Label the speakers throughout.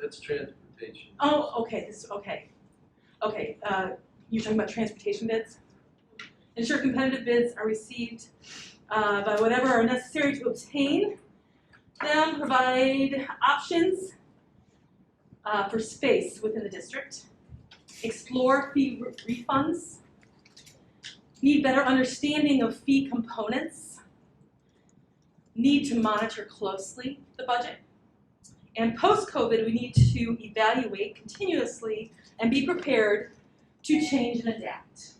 Speaker 1: That's transportation.
Speaker 2: Oh, okay, this, okay. Okay, uh, you're talking about transportation bids? Ensure competitive bids are received, uh, by whatever are necessary to obtain them, provide options, uh, for space within the district, explore fee re- refunds, need better understanding of fee components, need to monitor closely the budget, and post-COVID, we need to evaluate continuously and be prepared to change and adapt.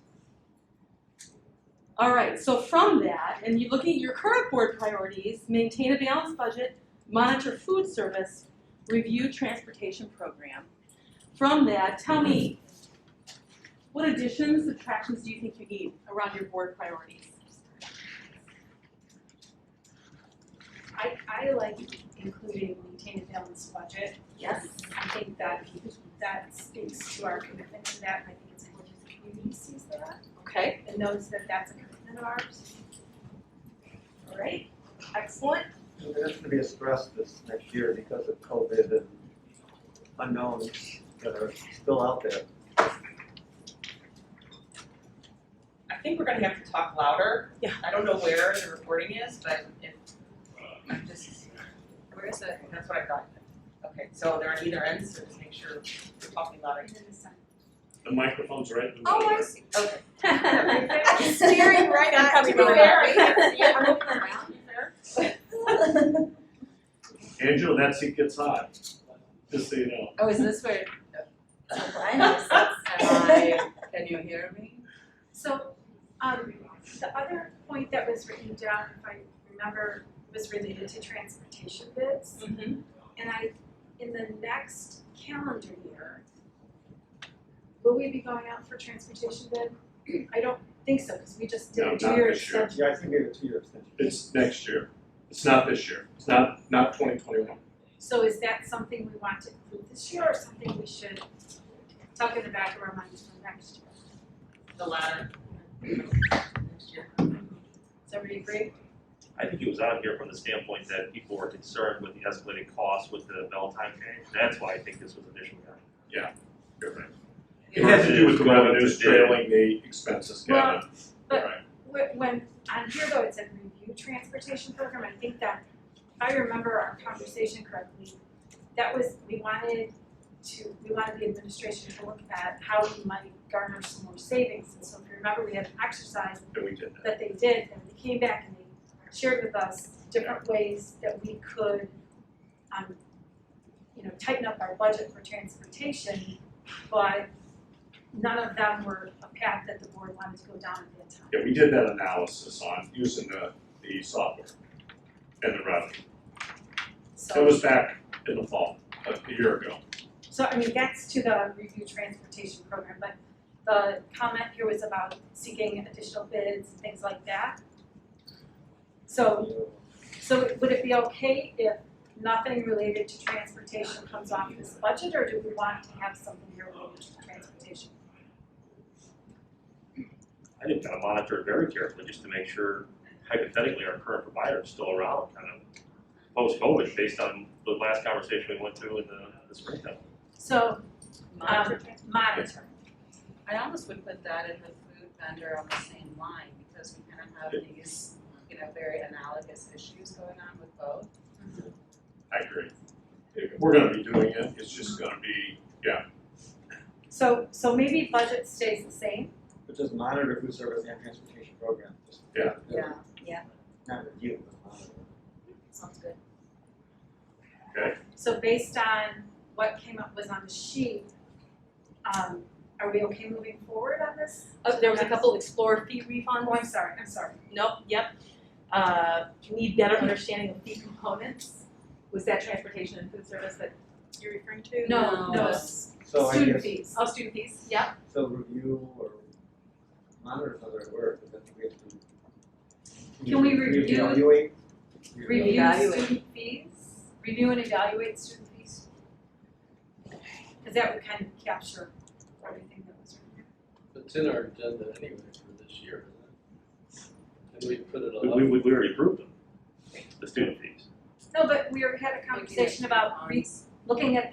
Speaker 2: All right, so from that, and you looking at your current board priorities, maintain a balanced budget, monitor food service, review transportation program. From that, tell me, what additions, subtractions do you think you need around your board priorities?
Speaker 3: I, I like including maintain a balanced budget.
Speaker 2: Yes.
Speaker 3: I think that, that speaks to our commitment to that, and I think it's important that the community sees that
Speaker 2: Okay,
Speaker 3: and knows that that's a commitment of ours.
Speaker 2: all right, excellent.
Speaker 4: There's gonna be a stress this next year because of COVID and unknowns that are still out there.
Speaker 5: I think we're gonna have to talk louder.
Speaker 2: Yeah.
Speaker 5: I don't know where the recording is, but if, I'm just, where is it? That's what I thought. Okay, so they're on either end, so just make sure we're talking louder.
Speaker 3: And then the second-
Speaker 6: The microphone's right in the middle.
Speaker 7: Oh, I see.
Speaker 5: Okay.
Speaker 7: I'm staring right at
Speaker 2: That's
Speaker 7: you.
Speaker 2: probably
Speaker 7: I'm
Speaker 2: fair.
Speaker 7: like, "Wait, I see it. I'm looking around."
Speaker 6: Angela, that seat gets hot, just so you know.
Speaker 7: Oh, is this where? Oh, blindness.
Speaker 5: Am I, can you hear me?
Speaker 3: So, um, the other point that was written down, if I remember, was related to transportation bids.
Speaker 7: Mm-hmm.
Speaker 2: Mhm.
Speaker 3: And I, in the next calendar year, will we be going out for transportation bid? I don't think so, because we just did
Speaker 6: No,
Speaker 3: a
Speaker 6: not
Speaker 3: two-year
Speaker 6: this year.
Speaker 3: extension.
Speaker 4: Yeah, I think we have a two-year extension.
Speaker 6: It's next year. It's not this year. It's not, not twenty twenty-one.
Speaker 3: So is that something we want to include this year or something we should tuck in the back of our minds for next year?
Speaker 5: The ladder.
Speaker 3: Does everybody agree?
Speaker 8: I think it was out here from the standpoint that people were concerned with the escalated costs with the bell time change. That's why I think this was initially done.
Speaker 6: You're right.
Speaker 8: Yeah.
Speaker 6: It has to do with the
Speaker 8: Versus
Speaker 6: revenues
Speaker 8: going to-
Speaker 6: trailing the expenses, Kevin.
Speaker 3: but-
Speaker 6: Right.
Speaker 3: When, when, on here though, it said review transportation program, I think that, if I remember our conversation correctly, that was, we wanted to, we wanted the administration to look at how we might garner some more savings. And so if you remember, we had an exercise
Speaker 6: And we did that.
Speaker 3: that they did, and they came back and they shared with us different ways that we could, um, you know, tighten up our budget for transportation, but none of them were a path that the board wanted to go down at that time.
Speaker 6: Yeah, we did that analysis on using the, the software and the revenue. It
Speaker 3: So,
Speaker 6: was back in the fall, a year ago.
Speaker 3: so I mean, that's to the review transportation program, but the comment here was about seeking additional bids and things like that. So So would it be okay if nothing related to transportation comes off this budget, or do we want to have something here related to transportation?
Speaker 8: I think kind of monitor it very carefully just to make sure hypothetically our current provider is still around kind of post-COVID based on the last conversation we went through in the, the springtime.
Speaker 3: So,
Speaker 7: Mine.
Speaker 3: um, monitor.
Speaker 7: I almost would put that and the food vendor on the same line because we kind of have these, you know, very analogous issues going on with both.
Speaker 6: I agree. We're gonna be doing it. It's just gonna be,
Speaker 3: So, so maybe budget stays the same,
Speaker 4: But just monitor food service and transportation program, just.
Speaker 6: Yeah.
Speaker 4: Not review, but monitor.
Speaker 7: sounds good.
Speaker 3: so based on what came up was on the sheet, um, are we okay moving forward on this?
Speaker 2: Uh, there was a couple explore fee refunds.
Speaker 3: Oh, I'm sorry, I'm sorry.
Speaker 2: Nope, yep. Uh, need better understanding of fee components. Was that transportation and food service that you're referring to?
Speaker 3: No, no.
Speaker 4: So I
Speaker 3: Student
Speaker 4: guess,
Speaker 3: fees.
Speaker 2: Oh, student fees, yep.
Speaker 4: so review or monitor is not the right word, but then we have to.
Speaker 3: Can we review-
Speaker 4: Evaluate.
Speaker 3: Review
Speaker 2: Evaluate.
Speaker 3: student fees, review and evaluate student fees. Cause that would kind of capture everything that was written.
Speaker 1: It's in our agenda anyway for this year, isn't it? And we put it
Speaker 8: We,
Speaker 1: all
Speaker 8: we,
Speaker 1: up.
Speaker 8: we already approved them, the student fees.
Speaker 3: No, but we already had a conversation about re- looking at the